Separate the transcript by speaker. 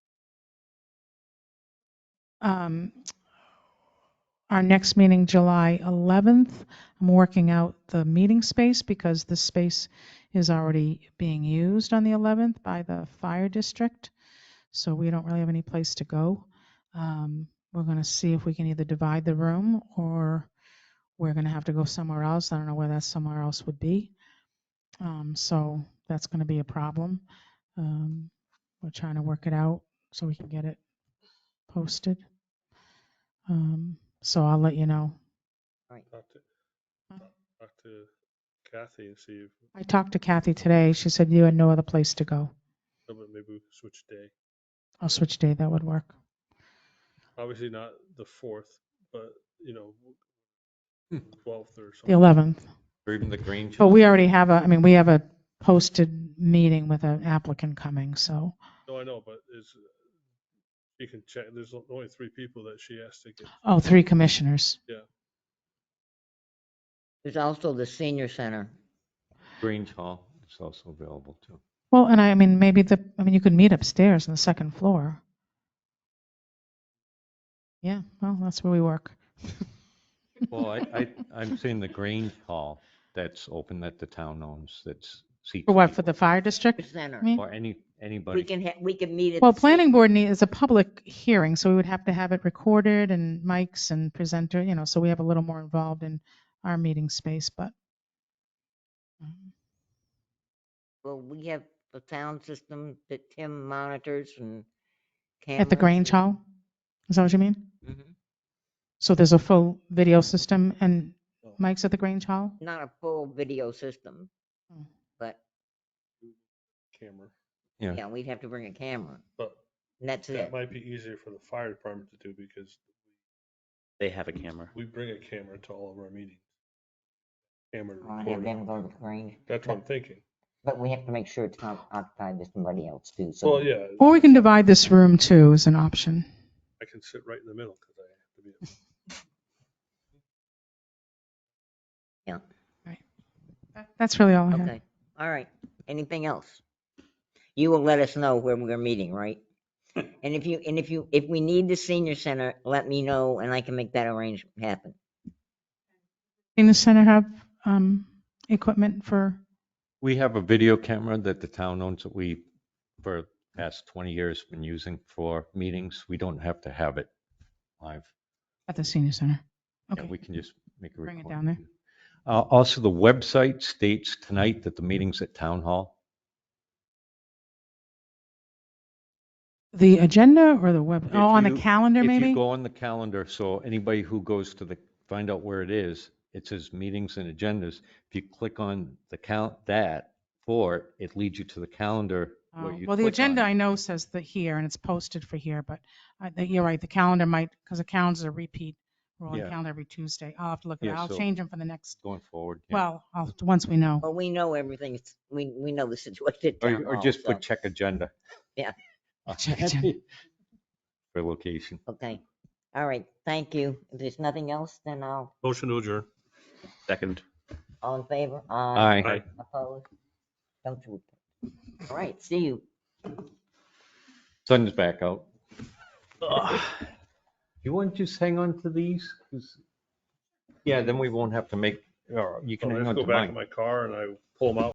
Speaker 1: um, our next meeting, July 11th. I'm working out the meeting space because the space is already being used on the 11th by the fire district, so we don't really have any place to go. Um, We're going to see if we can either divide the room or we're going to have to go somewhere else. I don't know where that somewhere else would be. Um, So that's going to be a problem. Um, We're trying to work it out so we can get it posted. Um, So I'll let you know.
Speaker 2: Talk to,
Speaker 1: Huh?
Speaker 2: talk to uh, Kathy and see if,
Speaker 1: I talked to Kathy today. She said you had no other place to go.
Speaker 2: no, but maybe we can switch day.
Speaker 1: I'll switch day. That would work.
Speaker 2: Obviously not the fourth, but, you know,
Speaker 3: Hmm.
Speaker 2: twelfth or
Speaker 1: The
Speaker 2: something.
Speaker 1: 11th.
Speaker 4: Or even the green.
Speaker 1: But we already have a, I mean, we have a posted meeting with an applicant coming, so.
Speaker 2: No, I know, but is, you can check, there's o- only three people that she has to get.
Speaker 1: Oh, three commissioners.
Speaker 3: There's also the senior center.
Speaker 4: Grange Hall is also available too.
Speaker 1: Well, and I, I mean, maybe the, I mean, you could meet upstairs on the second floor. Yeah, well, that's where we work.
Speaker 4: Well, I, I, I'm saying the Grange Hall that's open that the town owns, that's seats.
Speaker 1: For what, for the
Speaker 4: people
Speaker 1: fire district?
Speaker 3: Center.
Speaker 1: I mean,
Speaker 4: Or any,
Speaker 3: We
Speaker 4: anybody.
Speaker 3: can, ha- we can meet at.
Speaker 1: Well,
Speaker 3: the
Speaker 1: planning board need, is a public hearing, so we would have to have it recorded and mics and presenter, you know, so we have a little more involved in our meeting space, but. um,
Speaker 3: senior- Well, we have the sound system that Tim monitors and cameras.
Speaker 1: At the Grange Hall? Is that what you mean?
Speaker 4: Mhm.
Speaker 1: So there's a full video system and
Speaker 2: Oh.
Speaker 1: mics at the Grange Hall?
Speaker 3: Not a full video system,
Speaker 1: Mm.
Speaker 3: but
Speaker 2: Camera,
Speaker 4: Yeah,
Speaker 3: yeah, we'd have to bring a camera
Speaker 2: but
Speaker 3: and that's
Speaker 2: that
Speaker 3: it.
Speaker 2: might be easier for the fire department to do because
Speaker 5: They have a camera.
Speaker 2: we bring a camera to all of our meetings. Camera to
Speaker 3: Well, I have
Speaker 2: record.
Speaker 3: them
Speaker 2: it.
Speaker 3: go to the Grange,
Speaker 2: That's what I'm thinking.
Speaker 3: but we have to make sure it's not occupied by somebody else too. So
Speaker 2: Well, yeah,
Speaker 1: Or we can divide this room too as an option.
Speaker 2: I can sit right in the middle because I have to be. at-
Speaker 1: That- That's really all I
Speaker 4: Mm-hmm.
Speaker 1: have.
Speaker 3: Okay, all right. Anything else? You will let us know when we're meeting, right? And if you, and if you, if we need the senior center, let me know and I can make that arrangement happen.
Speaker 1: In the center have um, equipment for,
Speaker 4: we have a video camera that the town owns that we, for the past 20 years, been using for meetings. We don't have to have it live.
Speaker 1: at the senior center?
Speaker 4: Yeah,
Speaker 1: Okay,
Speaker 4: we can just make a
Speaker 1: Bring it
Speaker 4: recording.
Speaker 1: down there.
Speaker 4: Uh, also, the website states tonight that the meeting's at Town Hall.
Speaker 1: the agenda or the web,
Speaker 4: If
Speaker 1: oh, on the
Speaker 4: you-
Speaker 1: calendar
Speaker 4: If
Speaker 1: maybe?
Speaker 4: you go on the calendar, so anybody who goes to the, find out where it is, it says meetings and agendas. If you click on the count, that for it, it leads you to the calendar.
Speaker 1: Oh,
Speaker 4: where you
Speaker 1: Well, the
Speaker 4: click
Speaker 1: agenda
Speaker 4: on
Speaker 1: I
Speaker 4: it.
Speaker 1: know says the here and it's posted for here, but I think you're right, the calendar might, because the calendar's a repeat, rolling
Speaker 4: Yeah.
Speaker 1: calendar every Tuesday. I'll have to look at it.
Speaker 4: Yeah,
Speaker 1: I'll
Speaker 4: so-
Speaker 1: change them for the next,
Speaker 4: Going forward. yeah.
Speaker 1: well, I'll, once we know.
Speaker 3: Well, we know everything. It's- We, we know the situation. at town
Speaker 4: Or, or
Speaker 3: hall,
Speaker 4: just
Speaker 3: Oh, so,
Speaker 4: put check agenda. Uh,
Speaker 3: Yeah.
Speaker 1: Check agenda.
Speaker 4: For location.
Speaker 3: Okay. All right. Thank you. If there's nothing else, then I'll,
Speaker 2: Motion to adjourn.
Speaker 5: Second.
Speaker 3: all in favor?
Speaker 4: Aye.
Speaker 2: Aye.
Speaker 3: Opposed? Don't you. All right. See you.
Speaker 4: Sun's back out. You want to just hang on to these? 'Cause- Yeah, then we won't have to make, or you can
Speaker 2: So I
Speaker 4: hang
Speaker 2: just
Speaker 4: on
Speaker 2: go
Speaker 4: to
Speaker 2: back in
Speaker 4: mine.
Speaker 2: my car and I pull them out